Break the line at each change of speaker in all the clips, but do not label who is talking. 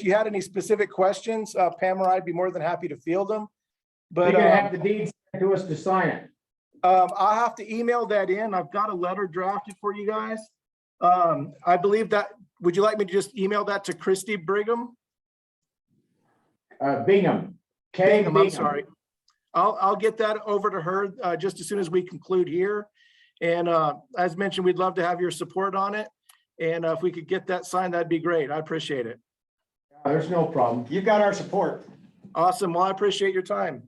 If you had any specific questions, uh, Pam or I'd be more than happy to field them.
You're
But
gonna
um,
have the deed sent to us to sign it.
um, I'll have to email that in. I've got a letter drafted for you guys. Um, I believe that, would you like me to just email that to Christy Brigham?
Uh, Bingham. K.
Bingham,
Bingham.
I'm sorry. I'll, I'll get that over to her uh, just as soon as we conclude here. And uh, as mentioned, we'd love to have your support on it. And uh, if we could get that signed, that'd be great. I appreciate it.
Uh, There's no problem.
You've got our support.
Awesome. Well, I appreciate your time.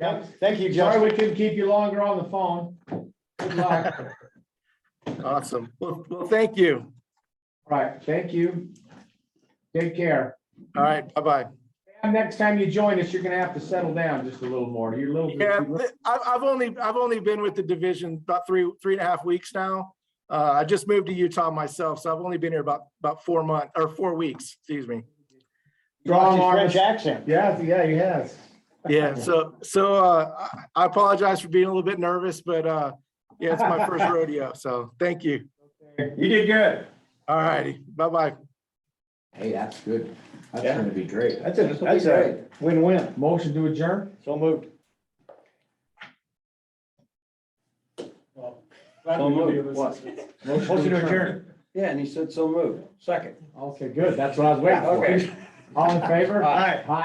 Yep.
Thank you,
Sorry
Justin.
we couldn't keep you longer on the phone. Good luck. All
Awesome. Well, well, thank you.
Right, thank you. Take care.
All right, bye-bye.
And next time you join us, you're gonna have to settle down just a little more. You're a little.
Yeah, th- I've, I've only, I've only been with the division about three, three and a half weeks now. Uh, I just moved to Utah myself, so I've only been here about, about four months, or four weeks, excuse me.
You lost
Strong
your
arms.
French accent.
Yeah, yeah, he has.
Yeah, so, so, uh, I I apologize for being a little bit nervous, but, uh, yeah, it's my first rodeo, so thank you.
You did good.
All righty, bye-bye.
Hey, that's good. That's
Yeah.
gonna be great.
That's a, that's a win-win.
Motion to adjourn?
So moved. So moved. What? Motion to adjourn.
Yeah, and he said so moved. Second.
Okay, good. That's what I was waiting for.
Okay.
All in favor?
Aye.
Aye.